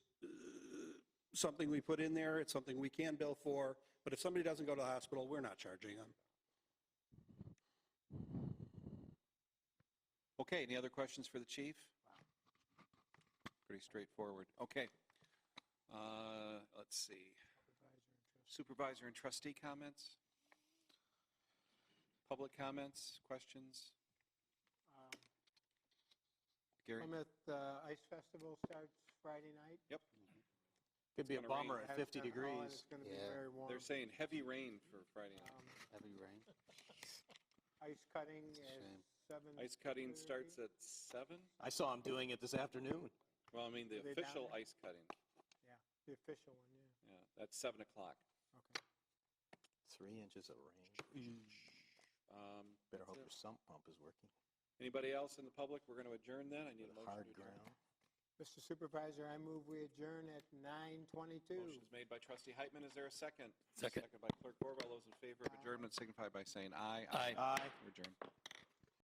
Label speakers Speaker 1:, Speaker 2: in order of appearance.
Speaker 1: something we put in there, it's something we can bill for, but if somebody doesn't go to the hospital, we're not charging them.
Speaker 2: Okay, any other questions for the chief? Pretty straightforward. Okay. Uh, Let's see. Supervisor and trustee comments? Public comments, questions?
Speaker 3: Um,
Speaker 2: Gary?
Speaker 3: Plymouth uh, Ice Festival starts Friday night.
Speaker 2: Yep.
Speaker 4: Could be a
Speaker 2: gonna rain.
Speaker 4: bomber at
Speaker 3: Has been hot, and
Speaker 4: 50 degrees.
Speaker 3: It's going to be
Speaker 5: Yeah.
Speaker 3: very warm.
Speaker 2: They're saying heavy rain for Friday night.
Speaker 3: Um,
Speaker 5: Heavy rain.
Speaker 3: Ice cutting
Speaker 5: It's a
Speaker 3: is
Speaker 5: shame.
Speaker 3: seven.
Speaker 2: Ice cutting starts at seven?
Speaker 4: I saw him doing it this afternoon.
Speaker 2: Well, I mean, the
Speaker 3: Are they down
Speaker 2: official
Speaker 3: there?
Speaker 2: ice cutting,
Speaker 3: The official one, yeah.
Speaker 2: yeah, that's seven o'clock.
Speaker 3: Okay.
Speaker 4: Three inches of rain.
Speaker 2: Um,
Speaker 4: Better hope
Speaker 2: So-
Speaker 4: your sump pump is working.
Speaker 2: Anybody else in the public? We're going to adjourn then. I need a
Speaker 4: The
Speaker 2: motion
Speaker 4: hard
Speaker 2: to adjourn.
Speaker 4: ground.
Speaker 3: Mr. Supervisor, I move we adjourn at 9:22.
Speaker 2: Motion's made by trustee Heitman. Is there a second?
Speaker 5: Second.
Speaker 2: Second by clerk Borba. All those in favor of adjournment signify by saying aye.
Speaker 5: Aye.
Speaker 4: Aye.
Speaker 2: We're adjourned.